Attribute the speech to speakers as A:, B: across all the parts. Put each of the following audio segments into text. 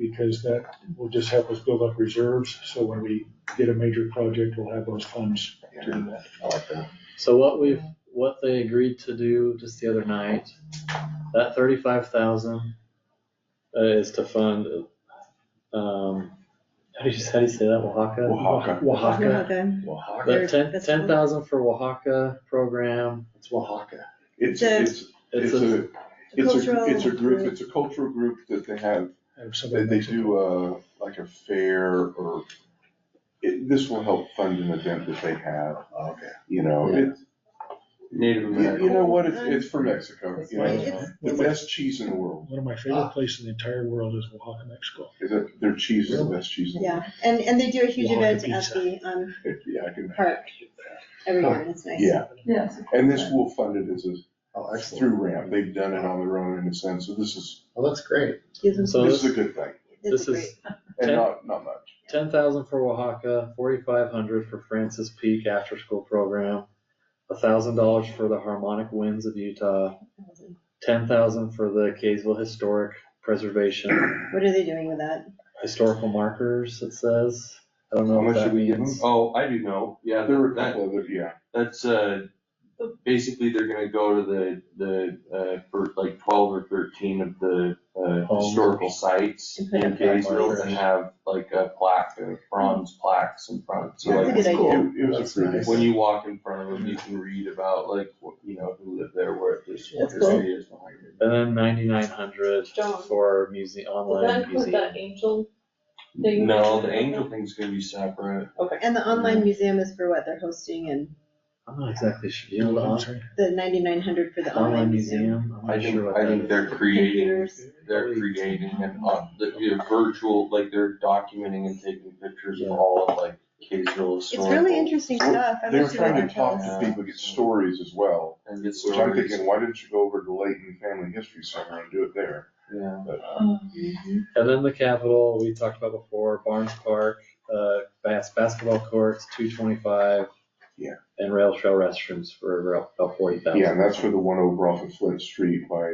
A: because that will just help us build up reserves, so when we get a major project, we'll have those funds to do that.
B: I like that.
C: So what we've, what they agreed to do just the other night, that thirty-five thousand uh, is to fund, um, how do you, how do you say that, Oaxaca?
B: Oaxaca.
C: Oaxaca.
D: Oaxaca.
B: Oaxaca.
C: The
D: There's-
C: ten,
D: that's
C: ten thousand for Oaxaca program, it's Oaxaca.
B: It's,
D: The-
B: it's,
C: It's
B: it's
C: a,
B: a, it's a,
D: Cultural
B: it's a group,
D: group.
B: it's a cultural group that they have,
A: Have
B: they,
A: somebody
B: they
A: mention-
B: do uh like a fair or, it, this will help fund an event that they have,
E: Okay.
B: you know,
C: Yeah.
B: it's,
E: Native
B: you
E: American.
B: you know what, it's, it's for Mexico,
D: It's
B: you know,
D: it's-
B: the best cheese in the world,
A: One of my favorite places in the entire world is Oaxaca, Mexico.
B: is that, their cheese is the best cheese in the world.
D: Yeah, and, and they do a huge
A: Oaxaca
D: event at the, um,
B: Yeah, I can,
D: park every year, and it's nice.
B: yeah,
F: Yes.
B: and this will fund it as a,
E: Oh, excellent.
B: through ramp, they've done it on their own in a sense, so this is,
E: Well, that's great.
D: Gives them-
C: So
B: this
C: this,
B: is a good thing,
C: this
D: It's
C: is
D: great,
B: and
C: Okay.
B: not, not much.
C: ten thousand for Oaxaca, forty-five hundred for Francis Peak After School Program, thousand dollars for the Harmonic Winds of Utah, ten thousand for the Kaysville Historic Preservation
D: what are they doing with that?
C: historical markers, it says. I don't
B: How
C: know
B: much
C: what
B: did
C: that
B: we give
C: means.
E: Oh, I do know. Yeah,
B: There were a
E: that,
B: couple of, yeah,
E: that's, uh, basically they're gonna go to the, the, uh, for like twelve or thirteen of the, uh,
C: Homes.
E: historical sites
D: And put
E: in
D: up plaques.
E: Kaysville and have like a plaque, uh, bronze plaques in front. So
B: Yeah,
E: like,
D: That's a good
E: it's cool.
D: idea.
B: it, it was
E: That's
B: a pretty.
E: When you walk in front of them, you can read about like, what- you know, who lived there, where this, what
D: That's
E: this
D: cool.
E: area is behind it.
C: And then ninety-nine hundred
F: John.
C: for muse-
F: Will that
C: online
F: include
C: museum.
F: that angel? thing?
E: No, the angel thing's gonna be separate.
D: And the online museum is for what they're hosting and
C: I'm not exactly sure, you know,
B: uh,
C: the on-
D: the ninety-nine hundred for the
C: online museum, I'm
E: I
C: not sure
E: think,
C: what
E: I
C: that
E: think
C: is.
E: they're creating
D: Computers.
E: they're creating and on, the, the virtual, like they're documenting and taking pictures of all of like Kaysville
D: It's
E: historical.
D: really interesting
B: Well,
D: stuff. I
B: They were
D: wish it would
B: trying to
D: have told
B: talk
D: us.
B: to people, get stories as well,
E: And get
B: which I'm
E: stories,
B: thinking, why didn't you go over to Layton Family History Center and do it there?
E: yeah.
B: But uh,
D: Mm. Mm-hmm.
C: And then the Capitol, we talked about before, Barnes Park, uh, bas- basketball courts, two twenty-five.
B: Yeah.
C: And rail trail restrooms for about- about forty thousand.
B: Yeah, and that's for the one over off of Flint Street by,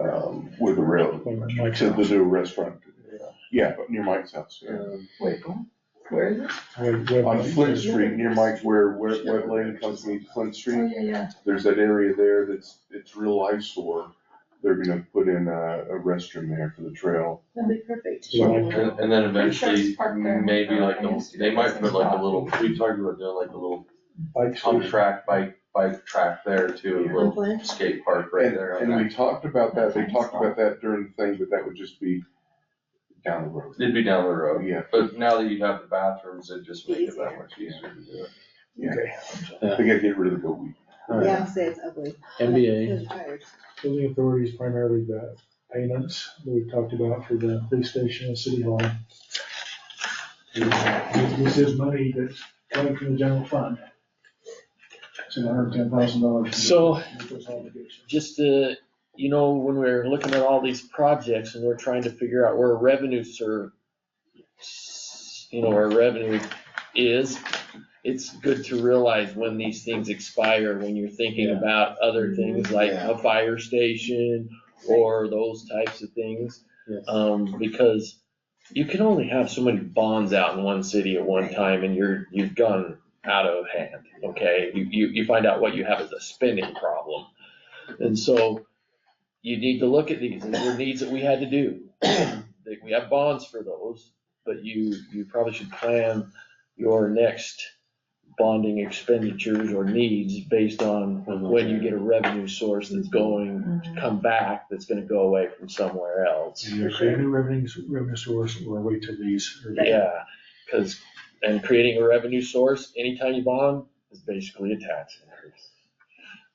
B: um, with the rail,
A: Mike's
B: to the
A: house.
B: new restaurant. Yeah, but near Mike's house, yeah.
C: Um,
F: Wait, what? where is it?
A: Web- web-
B: On Flint Street, near Mike, where, where, where Lane comes to meet Flint
F: Oh,
B: Street,
F: yeah, yeah.
B: there's that area there that's, it's real eyesore. They're gonna put in a, a restroom there for the trail.
D: That'd be perfect.
A: Yeah.
E: And, and then
F: Pretty
E: eventually,
F: sure it's parked
E: maybe
F: there.
E: like, the- they might put like a little, we talked about doing like a little
B: Bike
E: pump track, bike, bike track there too, a
D: On
E: little
D: Flint?
E: skate park right
B: And-
E: there. on
B: And we
E: that.
B: talked about that, they
F: Okay.
B: talked about that during the thing, but that would just be down the road.
E: It'd be down the
B: Oh,
E: road,
B: yeah,
E: but now that you have the bathrooms, it just makes it that much easier to do it.
B: yeah. I think I'd get rid of the goat weed.
C: All right.
D: Yeah, say it's ugly.
C: NBA,
D: I'm tired.
A: Building authorities primarily the payments that we talked about for the police station and city hall. This is money that's coming from the general fund. It's an hundred and ten thousand dollars.
G: So- just to, you know, when we're looking at all these projects and we're trying to figure out where revenue serve, you know, where revenue is, it's good to realize when these things expire, when you're thinking
C: Yeah.
G: about other things like
E: Yeah.
G: a fire station or those types of things.
C: Yes.
G: Um, because you can only have so many bonds out in one city at one time and you're, you've gone out of hand, okay? You, you, you find out what you have is a spending problem. And so you need to look at these, and these are needs that we had to do. That We have bonds for those, but you, you probably should plan your next bonding expenditures or needs based on when you get a revenue source that's going to come back, that's gonna go away from somewhere else.
A: Either create a new revenue, revenue source or wait till these. are-
G: Yeah, cause, and creating a revenue source, anytime you bond, is basically a tax increase.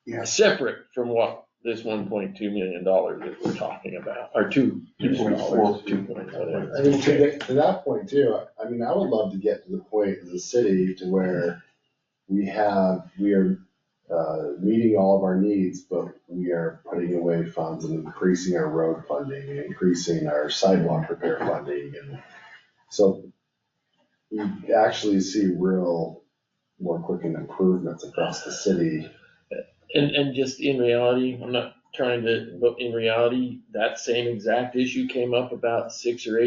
B: Yeah.
G: Separate from what this one point two million dollars that we're talking about, or two, two point four, two point whatever.
E: Right.
H: I mean, to that, to that point too, I mean, I would love to get to the point as a city to where we have, we are, uh, meeting all of our needs, but we are putting away funds and increasing our road funding and increasing our sidewalk repair funding and so you actually see real, more quick improvements across the city.
G: And, and just in reality, I'm not trying to, but in reality, that same exact issue came up about six or eight